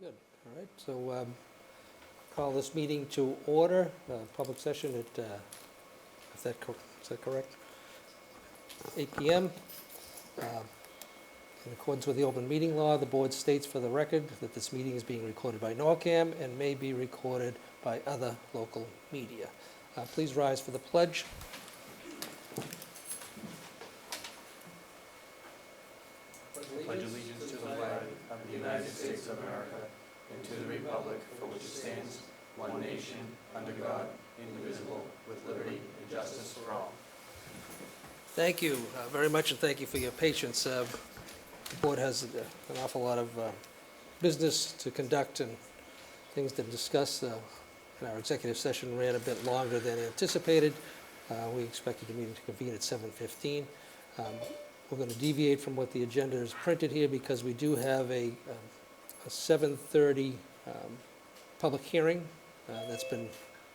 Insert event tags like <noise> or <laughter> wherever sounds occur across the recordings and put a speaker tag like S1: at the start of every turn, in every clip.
S1: All right, so um, call this meeting to order, uh, public session at, uh, is that cor- is that correct? 8 PM. Um, In accordance with the open meeting law, the board states for the record that this meeting is being recorded by NORCAM and may be recorded by other local media. Uh, Please rise for the pledge.
S2: pledge allegiance to the flag of the United States of America and to the republic for which it stands, one nation, under God, indivisible, with liberty and justice for all.
S1: Thank you uh, very much, and thank you for your patience. Uh, The board has uh, an awful lot of uh, business to conduct and things to discuss, uh, and our executive session ran a bit longer than anticipated. Uh, We expected the meeting to convene at 7:15. Um, We're going to deviate from what the agenda is printed here because we do have a um, a 7:30 um, public hearing uh, that's been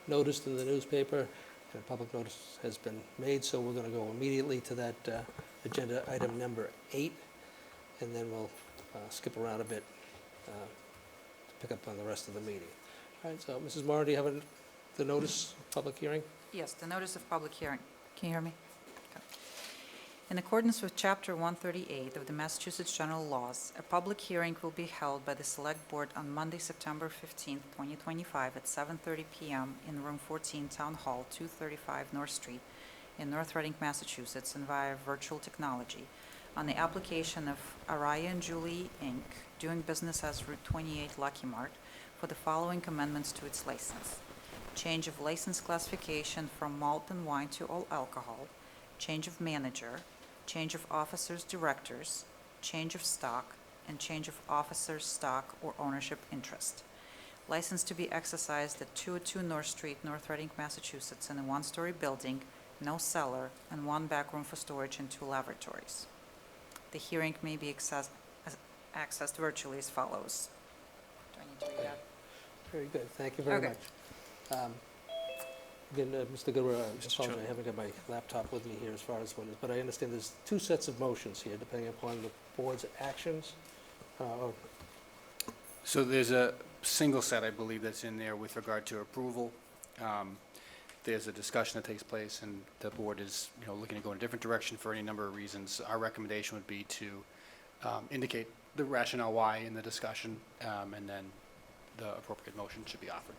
S1: noticed in the newspaper, and public notice has been made, so we're going to go immediately to that uh, agenda item number eight, and then we'll uh, skip around a bit uh, to pick up on the rest of the meeting. All right, so Mrs. Moran, do you have a- the notice, of public hearing?
S3: Yes, the notice of public hearing. Can you hear me? Okay. In accordance with Chapter 138 of the Massachusetts General Laws, a public hearing will be held by the Select Board on Monday, September 15, 2025, at 7:30 PM in Room 14, Town Hall, 235 North Street, in North Reading, Massachusetts, and via virtual technology, on the application of Araya and Julie, Inc., doing business as Route 28 Lucky Mart, for the following amendments to its license change of license classification from malt and wine to all alcohol, change of manager, change of officers, directors, change of stock, and change of officers, stock, or ownership interest. License to be exercised at 202 North Street, North Reading, Massachusetts, in a one-story building, no cellar, and one back room for storage and two laboratories. The hearing may be access- as- accessed virtually as follows. Do I need to read that?
S1: Very good, thank you very
S3: Okay.
S1: much. Um, Again, uh, Mr. Goodwin, I apologize,
S2: Chairman.
S1: I haven't got my laptop with me here as far as what is, but I understand there's two sets of motions here, depending upon the board's actions. Uh, or-
S2: So there's a single set, I believe, that's in there with regard to approval. Um, There's a discussion that takes place, and the board is, you know, looking to go in a different direction for any number of reasons. Our recommendation would be to um, indicate the rationale why in the discussion, um, and then the appropriate motion should be offered.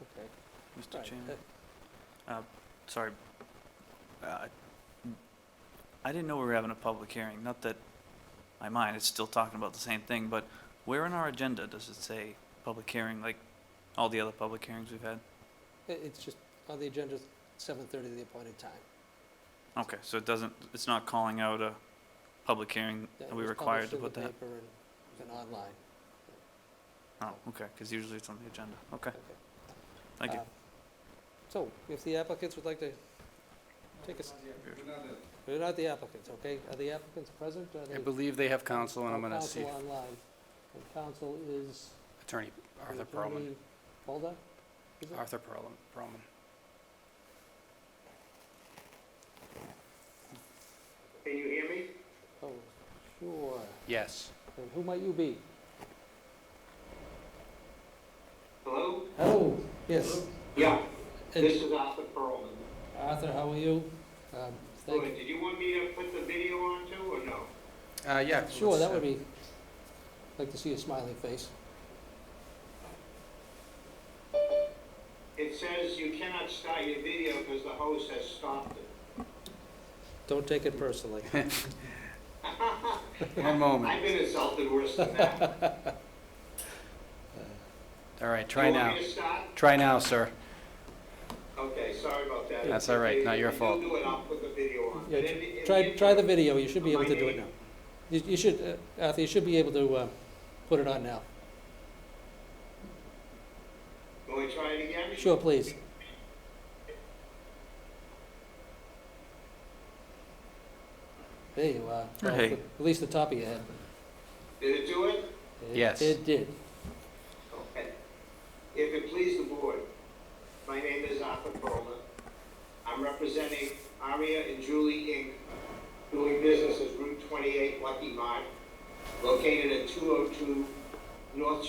S1: okay.
S4: Mr.
S1: Right,
S4: Chairman,
S1: uh,
S4: sorry. Uh, I didn't know we were having a public hearing. Not that my mind is still talking about the same thing, but where in our agenda does it say public hearing, like all the other public hearings we've had?
S1: i- It's just on the agenda, 7:30, the appointed time.
S4: Okay, so it doesn't, it's not calling out a public hearing,
S1: That
S4: are we
S1: was published
S4: required to
S1: in
S4: put
S1: the
S4: that?
S1: paper and- and online.
S4: Oh, okay, because usually it's on the agenda. Okay,
S1: Okay.
S4: thank you.
S1: Uh, So if the applicants would like to take a... s- We're not the applicants, okay? Are the applicants present? Are
S2: I
S1: they-
S2: believe they have counsel, and I'm going to
S1: Counsel
S2: see
S1: online. And counsel is
S2: Attorney
S1: the
S2: Arthur Perlman.
S1: attorney Baldock? is it?
S2: Arthur Perlman, Perlman.
S5: Can you hear me?
S1: Oh, sure.
S2: Yes.
S1: And who might you be?
S5: Hello?
S1: Hello, yes.
S5: Yeah,
S1: And
S5: this is Arthur Pearlman.
S1: Arthur, how are you? Um,
S5: Go
S1: Thank
S5: ahead.
S1: you.
S5: Did you want me to put the video on too, or no?
S2: Uh, yeah.
S1: Sure,
S2: let's,
S1: that
S2: uh,
S1: would be, like to see a smiling face.
S5: It says you cannot start your video because the host has stopped it.
S1: Don't take it personally.
S2: One moment.
S5: I've been insulted worse than
S1: <laughs>
S5: that.
S2: All right, try
S5: You
S2: now.
S5: want me to start?
S2: Try now, sir.
S5: Okay, sorry about that.
S2: That's all right. Not your fault.
S5: If you do it, I'll put the video on.
S1: Yeah,
S5: And in in
S1: Try, try the
S5: interim-
S1: video, you should be able
S5: My
S1: to do it now.
S5: name.
S1: You you should, uh, Arthur, you should be able to uh, put it on now.
S5: Will we try it again?
S1: Sure, please. There you are. Well,
S4: Hey.
S1: At least the top of your head.
S5: Did it do it?
S1: It-
S2: Yes.
S1: It did.
S5: Okay. If it please the board, my name is Arthur Perlman. I'm representing Aria and Julie Inc., doing business as Route 28 Lucky Mart, located at 202 North